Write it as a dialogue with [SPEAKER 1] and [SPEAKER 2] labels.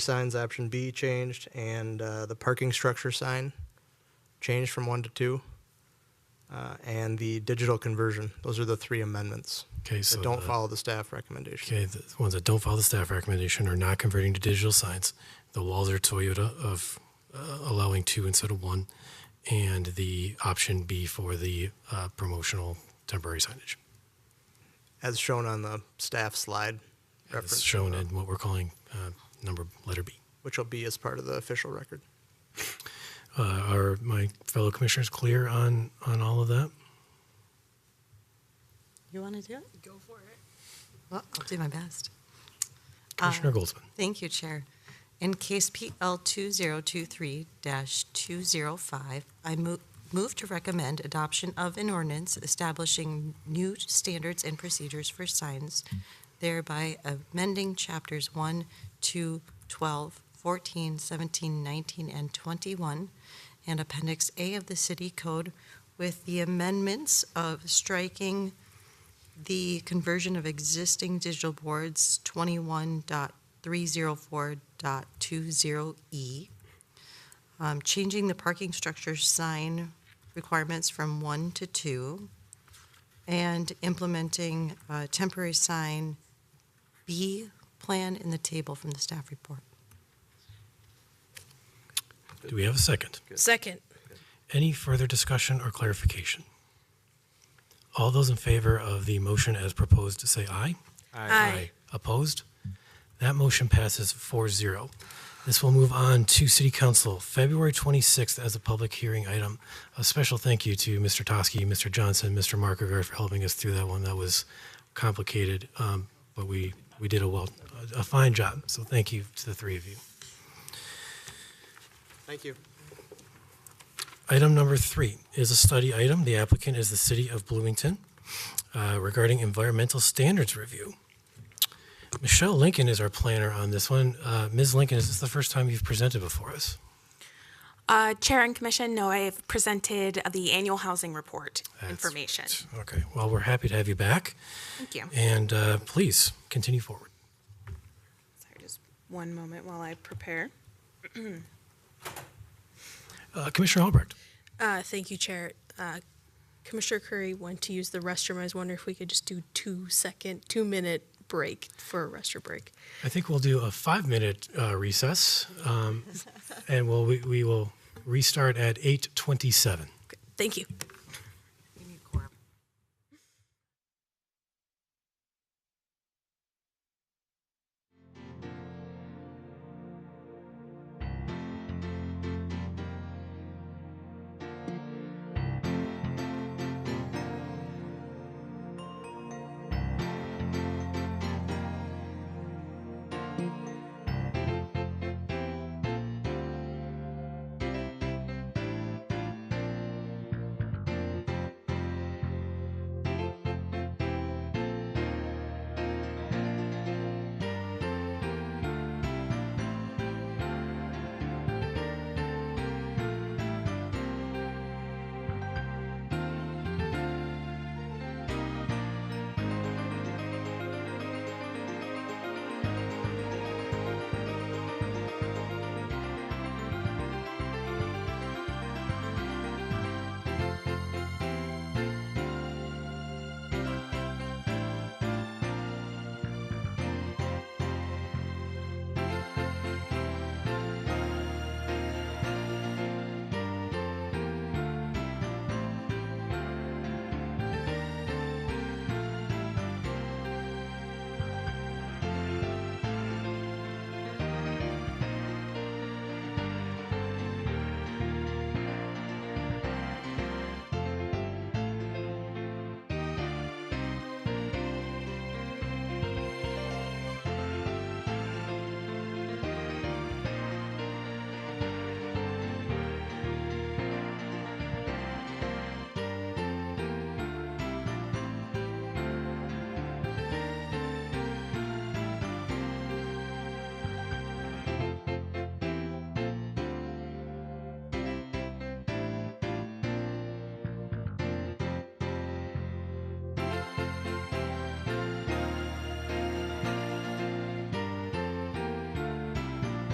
[SPEAKER 1] signs option B changed and uh, the parking structure sign changed from one to two. Uh, and the digital conversion. Those are the three amendments
[SPEAKER 2] Okay, so
[SPEAKER 1] that don't
[SPEAKER 2] the-
[SPEAKER 1] follow the staff recommendation.
[SPEAKER 2] Okay, the ones that don't follow the staff recommendation are not converting to digital signs. The Walzer Toyota of uh, allowing two instead of one, and the option B for the uh, promotional temporary signage,
[SPEAKER 1] As shown on the staff slide
[SPEAKER 2] as
[SPEAKER 1] reference,
[SPEAKER 2] shown in what we're calling uh, number letter B.
[SPEAKER 1] which will be as part of the official record.
[SPEAKER 2] Uh, are my fellow commissioners clear on on all of that?
[SPEAKER 3] You want to do it? Go for it. Well, I'll do my best.
[SPEAKER 2] Commissioner Goldsman.
[SPEAKER 3] Thank you, Chair. In case PL 2023-205, I mo- move to recommend adoption of an ordinance establishing new standards and procedures for signs, thereby amending Chapters 1, 2, 12, 14, 17, 19, and 21, and Appendix A of the City Code with the amendments of striking the conversion of existing digital boards 21.304.20E, E, um, changing the parking structure sign requirements from one to two, and implementing uh, temporary sign B plan in the table from the staff report.
[SPEAKER 2] Do we have a second?
[SPEAKER 4] Second.
[SPEAKER 2] Any further discussion or clarification? All those in favor of the motion as proposed, say aye. Opposed? That motion passes 4 0. This will move on to City Council, February 26th, as a public hearing item. A special thank you to Mr. Toskey, Mr. Johnson, Mr. Markegard for helping us through that one. That was complicated, um, but we, we did a well, a fine job. So thank you to the three of you.
[SPEAKER 1] Thank you.
[SPEAKER 2] Item number three is a study item. The applicant is the City of Bloomington uh, regarding environmental standards review. Michelle Lincoln is our planner on this one. Uh, Ms. Lincoln, is this the first time you've presented before us?
[SPEAKER 5] Uh, Chair and Commission, no, I have presented the annual housing report
[SPEAKER 2] That's
[SPEAKER 5] information.
[SPEAKER 2] Okay, well, we're happy to have you back,
[SPEAKER 5] Thank you.
[SPEAKER 2] and uh, please continue forward.
[SPEAKER 5] Sorry, just one moment while I prepare.
[SPEAKER 2] Uh, Commissioner Albrecht,
[SPEAKER 4] Uh, thank you, Chair. Uh, Commissioner Curry went to use the restroom. I was wondering if we could just do two second, two minute break for a restroom break.
[SPEAKER 2] I think we'll do a five-minute uh, recess, um, and we'll, we we will restart at 8:27.
[SPEAKER 4] Thank you.